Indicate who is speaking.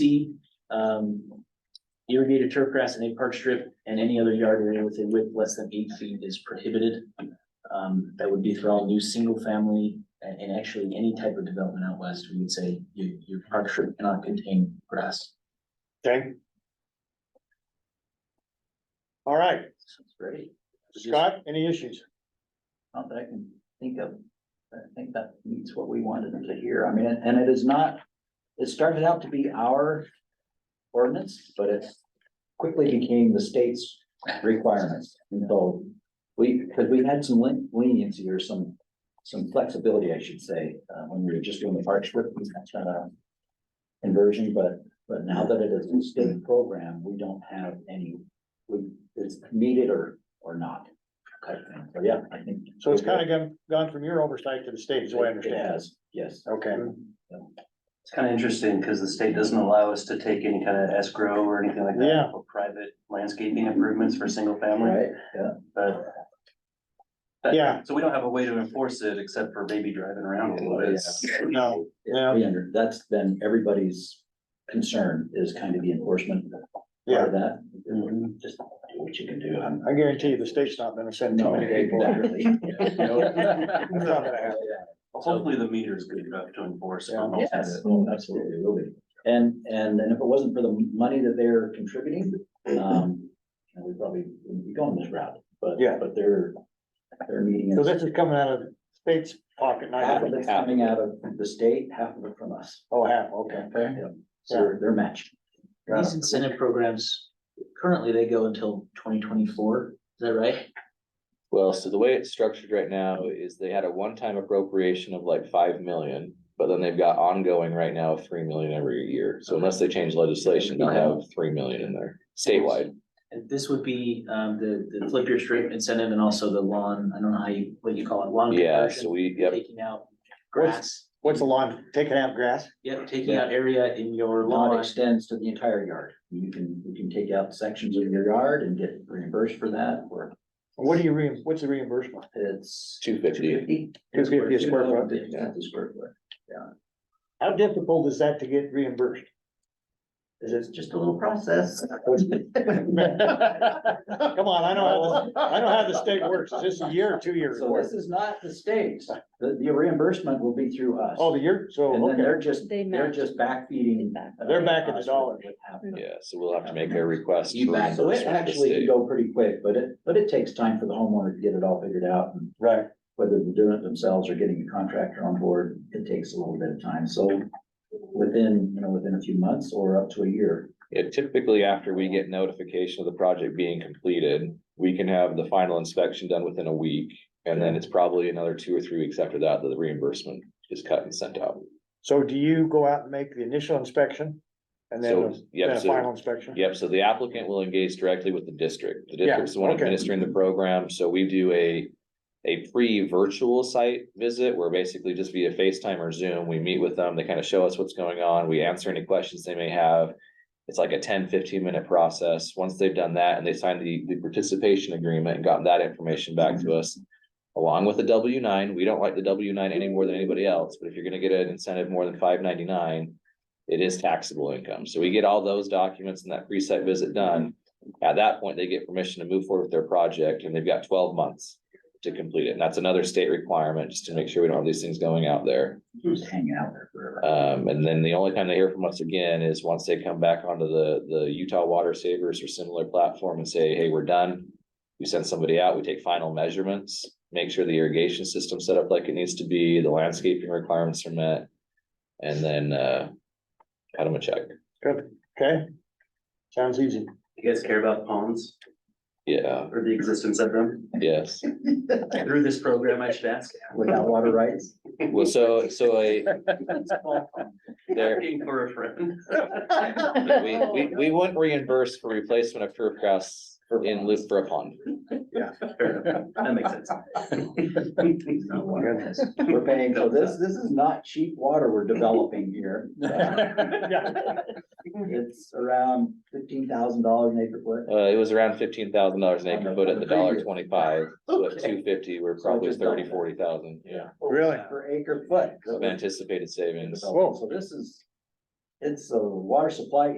Speaker 1: C, um, irrigated turf grass and a park strip and any other yard area with a width less than eight feet is prohibited. Um, that would be for all new single family and, and actually any type of development out west, we would say your, your park strip cannot contain grass.
Speaker 2: Okay. All right,
Speaker 1: Sounds great.
Speaker 2: Scott, any issues?
Speaker 3: Not that I can think of, I think that meets what we wanted to hear, I mean, and it is not, it started out to be our ordinance, but it quickly became the state's requirements, and so we, because we had some len- leniency or some, some flexibility, I should say, uh, when we were just doing the park strip, we had a conversion, but, but now that it is a state program, we don't have any, we, it's needed or, or not. type thing. So, yeah, I think.
Speaker 2: So it's kind of gone, gone from your oversight to the state, is what I
Speaker 3: It
Speaker 2: understand.
Speaker 3: has, yes.
Speaker 2: Okay,
Speaker 4: It's kind of interesting because the state doesn't allow us to take any kind of escrow or anything like
Speaker 2: Yeah.
Speaker 4: that for private landscaping improvements for single family, but. but-
Speaker 2: Yeah.
Speaker 4: So we don't have a way to enforce it except for maybe driving around a little bit.
Speaker 2: no,
Speaker 3: Yeah,
Speaker 2: Yeah.
Speaker 3: we under, that's been everybody's concern is kind of the enforcement part
Speaker 2: yeah, Mm-hmm.
Speaker 3: of that. Just do what you can do. I'm-
Speaker 2: I guarantee you the state's not gonna send too
Speaker 3: No,
Speaker 2: many people. out.
Speaker 3: exactly. No.
Speaker 2: It's not gonna happen.
Speaker 4: Hopefully the meter is good enough to enforce. for
Speaker 2: Yeah.
Speaker 4: most of
Speaker 3: Yes,
Speaker 4: it.
Speaker 3: oh, absolutely, it will be. And, and, and if it wasn't for the money that they're contributing, um, you know, we probably wouldn't be going this route, but,
Speaker 2: Yeah.
Speaker 3: but they're, they're meeting.
Speaker 2: So this is coming out of the state's pocket, not,
Speaker 3: Half of it's coming out of the state, half of it from us.
Speaker 2: oh, half, okay.
Speaker 3: So they're- they're matched.
Speaker 2: Got
Speaker 1: These incentive programs, currently they go until twenty twenty-four, is that right?
Speaker 5: Well, so the way it's structured right now is they had a one-time appropriation of like five million, but then they've got ongoing right now of three million every year. So unless they change legislation, they'll have three million in there statewide.
Speaker 1: And this would be, um, the, the flip your strip incentive and also the lawn, I don't know how you, what you call it, lawn
Speaker 5: Yeah, so
Speaker 1: conversion,
Speaker 5: we, yep,
Speaker 1: taking out grass.
Speaker 2: What's the lawn, taking out grass?
Speaker 1: Yep, taking out area in your
Speaker 3: Law
Speaker 1: lawn.
Speaker 3: extends to the entire yard. You can, you can take out sections of your yard and get reimbursed for that, or
Speaker 2: What do you re, what's the reimbursement?
Speaker 3: it's.
Speaker 5: two fifty.
Speaker 3: 250.
Speaker 2: Two fifty a square foot.
Speaker 3: Yeah, the square foot.
Speaker 2: How difficult is that to get reimbursed? Is it?
Speaker 3: It's just a little process.
Speaker 2: Come on, I know how, this- I know how the state works. Is this a year or two years?
Speaker 3: So this is not the state. The, the reimbursement will be through us.
Speaker 2: Oh, the year,
Speaker 3: And
Speaker 2: so,
Speaker 3: then
Speaker 2: okay,
Speaker 3: they're just,
Speaker 6: They
Speaker 3: they're
Speaker 6: match.
Speaker 3: just backfeeding.
Speaker 2: They're backing the dollar.
Speaker 5: Yeah, so we'll have to make a request.
Speaker 3: You
Speaker 5: for
Speaker 3: back, so it
Speaker 5: reimbursement to the
Speaker 3: actually can
Speaker 5: state.
Speaker 3: go pretty quick, but it, but it takes time for the homeowner to get it all figured out and
Speaker 2: right,
Speaker 3: whether they're doing it themselves or getting a contractor on board, it takes a little bit of time, so. Within, you know, within a few months or up to a year,
Speaker 5: Yeah, typically after we get notification of the project being completed, we can have the final inspection done within a week. And then it's probably another two or three weeks after that that the reimbursement is cut and sent out.
Speaker 2: so do you go out and make the initial inspection? And
Speaker 5: So,
Speaker 2: then,
Speaker 5: yeah,
Speaker 2: then a
Speaker 5: so
Speaker 2: final inspection?
Speaker 5: Yep, so the applicant will engage directly with the district. The
Speaker 2: Yeah,
Speaker 5: district's the one
Speaker 2: okay.
Speaker 5: administering the program, so we do a. A pre-virtual site visit where basically just via FaceTime or Zoom, we meet with them, they kind of show us what's going on, we answer any questions they may have. It's like a 10, 15 minute process. Once they've done that and they signed the, the participation agreement and gotten that information back to us. Along with the W nine, we don't like the W nine any more than anybody else, but if you're gonna get an incentive more than five ninety-nine it is taxable income. So we get all those documents and that pre-site visit done. At that point, they get permission to move forward with their project and they've got twelve months to complete it. And that's another state requirement, just to make sure we don't have these things going out there.
Speaker 3: just hanging out there forever.
Speaker 5: Um, and then the only time they hear from us again is once they come back onto the, the Utah Water Savers or similar platform and say, hey, we're done. We send somebody out, we take final measurements, make sure the irrigation system's set up like it needs to be, the landscaping requirements are met. And then, uh, cut them a check.
Speaker 2: Good, okay. Sounds easy.
Speaker 4: You guys care about ponds
Speaker 5: Yeah,
Speaker 4: or the existence of them?
Speaker 5: yes.
Speaker 4: Through this program, I should ask.
Speaker 3: Without water rights,
Speaker 5: Well, so, so I, there,
Speaker 4: Looking for a friend.
Speaker 5: we, we, we wouldn't reimburse for replacement of turf grass in lieu for a pond.
Speaker 4: Fair enough. That makes sense.
Speaker 1: Not one.
Speaker 3: we're paying, so this, this is not cheap water we're developing here.
Speaker 2: Yeah.
Speaker 3: It's around fifteen thousand dollars an acre foot.
Speaker 5: Uh, it was around fifteen thousand dollars an
Speaker 3: On the-
Speaker 5: acre foot
Speaker 3: on
Speaker 5: at
Speaker 3: the
Speaker 5: the dollar
Speaker 3: previous.
Speaker 5: twenty-five, so at
Speaker 3: Okay.
Speaker 5: two fifty, we're
Speaker 3: So
Speaker 5: probably
Speaker 3: just double
Speaker 5: thirty,
Speaker 3: that.
Speaker 5: forty thousand, yeah.
Speaker 2: Really?
Speaker 3: Per acre foot. So
Speaker 5: Of anticipated savings.
Speaker 3: So this is it's a water supply